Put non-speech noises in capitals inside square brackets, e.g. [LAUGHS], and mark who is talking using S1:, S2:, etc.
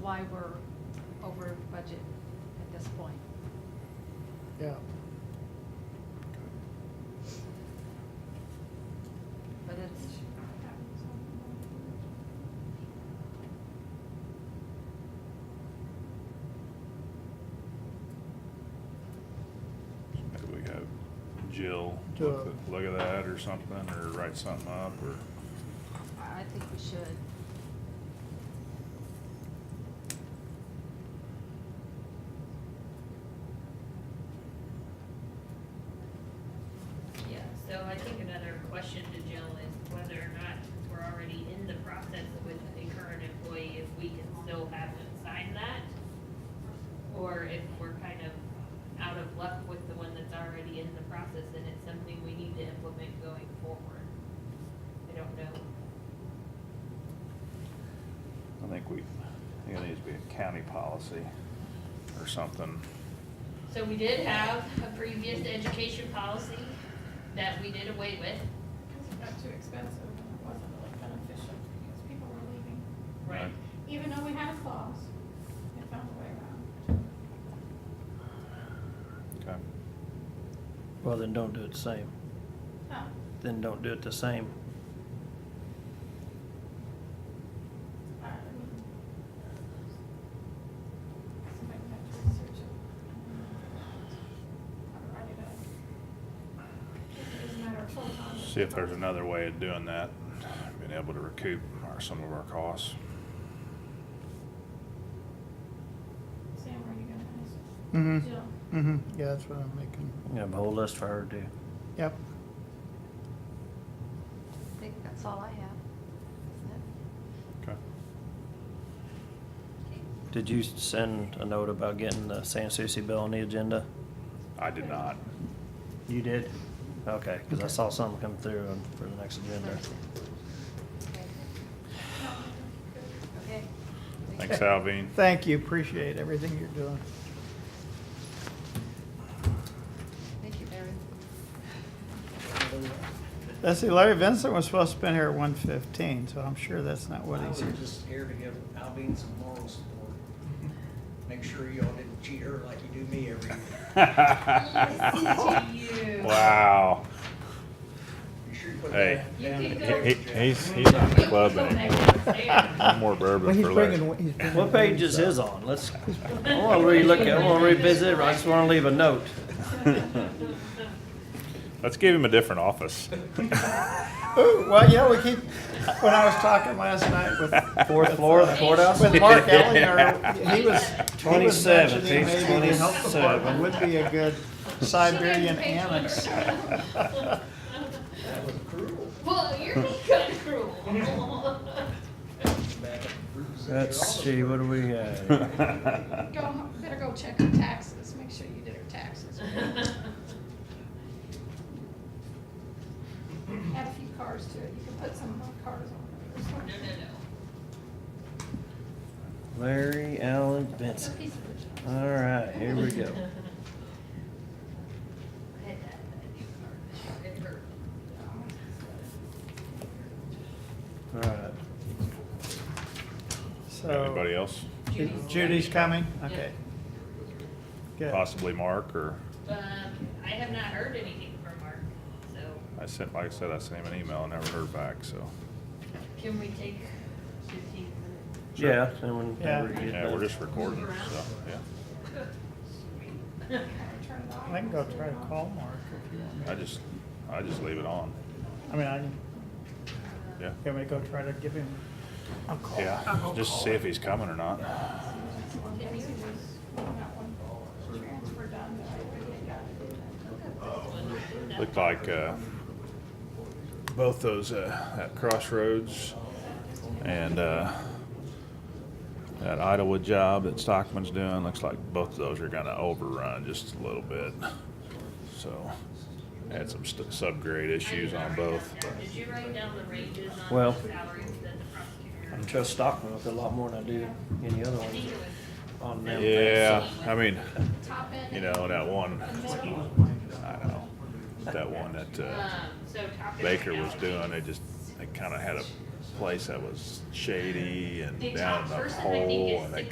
S1: why we're over budget at this point.
S2: Yeah.
S1: But it's,
S3: Maybe we have Jill
S2: To-
S3: look
S4: uh,
S3: at- look at that or something, or write something up, or,
S1: I think we should.
S5: Yeah, so I think another question to Jill is whether or not, since we're already in the process with a current employee, if we can still have them sign that? Or if we're kind of out of luck with the one that's already in the process and it's something we need to implement going forward? I don't know.
S3: I think we, I think it needs to be a county policy or something.
S5: So we did have a previous education policy that we did away with.
S6: Because it got too expensive and it wasn't really beneficial because people were leaving.
S3: Right.
S6: Even though we had a clause, they found a way around.
S3: Okay,
S2: Well, then don't do it the same.
S6: No,
S2: Then don't do it the same.
S6: I mean. Somebody had to research it. Or write it up. It doesn't matter if full time.
S3: see if there's another way of doing that, being able to recoup our, some of our costs.
S6: Sam, are you gonna ask?
S4: Mm-hmm,
S6: Jill,
S4: mm-hmm, yeah, that's what I'm making.
S2: You have a whole list for her to do.
S4: Yep,
S1: I think that's all I have, isn't it?
S3: Okay.
S2: Did you send a note about getting the San Souci bill on the agenda?
S3: I did not.
S2: You did? Okay, because I saw something come through on- for the next agenda. [LAUGHS]
S1: Okay.
S3: Thanks, Alvin. [LAUGHS]
S4: thank you, appreciate everything you're doing.
S1: Thank you, Mary.
S4: Let's see, Larry Vincent was supposed to have been here at one fifteen, so I'm sure that's not what
S7: I
S4: he's here.
S7: was just here to give Alvin some moral support. Make sure y'all didn't cheat her like you do me every year.
S3: Wow.
S7: You sure you put
S3: Hey.
S7: that
S5: You
S7: down
S5: can
S7: in the
S5: go-
S7: garbage, Jack?
S3: He's, he's on the club, and one more
S4: Well,
S3: bourbon
S4: he's
S3: for Larry.
S4: bringing, he's bringing.
S2: What page is his on? Let's, I want to relook at, I want to revisit, it. I just want to leave a note.
S3: Let's give him a
S4: [LAUGHS]
S3: different office.
S4: Ooh, well, yeah, we keep, when I was talking last night with,
S2: [LAUGHS] Fourth floor of the courthouse?
S4: with
S2: [LAUGHS]
S4: Mark Ellinger, he was. he was
S2: 27,
S4: mentioning
S2: page
S4: maybe the health department
S2: 27.
S4: Would be a good Siberian annex.
S5: [LAUGHS]
S7: That was cruel.
S5: Well,
S3: [LAUGHS]
S5: you're being kind of cruel.
S7: Back up the bruises that
S2: Let's see,
S7: you're all
S2: what do we have? [LAUGHS]
S6: go, home- better go check her taxes, make sure you did her
S5: [LAUGHS]
S6: taxes. Add a few cars to it, you can put some more cars
S5: No,
S6: on
S5: no,
S6: it.
S5: no.
S2: Larry Allen
S6: It's a
S2: Benson.
S6: piece of it.
S2: All right, here we [LAUGHS] go.
S5: I had that, that new car this year. It hurt.
S2: All right.
S3: Anybody
S4: So
S3: else?
S5: Judy's-
S4: Judy's coming, okay. Good.
S3: Possibly Mark, or,
S5: Um, I have not heard anything from Mark, so
S3: I sent, like I said, I sent him an email, and never heard back, so.
S5: can we take fifteen minutes?
S2: Yeah, and whenever you get
S3: Yeah, we're
S2: done.
S3: just recording, so, yeah.
S6: Turn it off.
S4: I can go try to call Mark if you want me.
S3: I just, I just leave it on,
S4: I mean, I can,
S3: yeah.
S4: can we go try to give him a call?
S3: Yeah, just see if he's coming or not.
S6: Yes, he was, we got one transfer done, that I really got to do that.
S3: Looked like, uh, both those, uh, that Crossroads and, uh, that Idawood job that Stockman's doing, looks like both of those are gonna overrun just a little bit. So, had some st- subgrade issues on both, but.
S5: Did you write down the ranges on
S2: Well-
S5: the salaries that the prosecutor?
S2: I trust Stockman with a lot more than I do any other
S5: I think
S2: one
S5: it was
S2: on them.
S3: Yeah, I mean,
S6: Top end.
S3: you know, that one,
S6: The middle.
S3: I don't know, that one that, uh,
S5: Um, so top.
S3: Baker was doing, they just, they kinda had a place that was shady and
S5: The
S3: down in
S5: top
S3: the
S5: person, I think,
S3: hole,
S5: is
S3: and they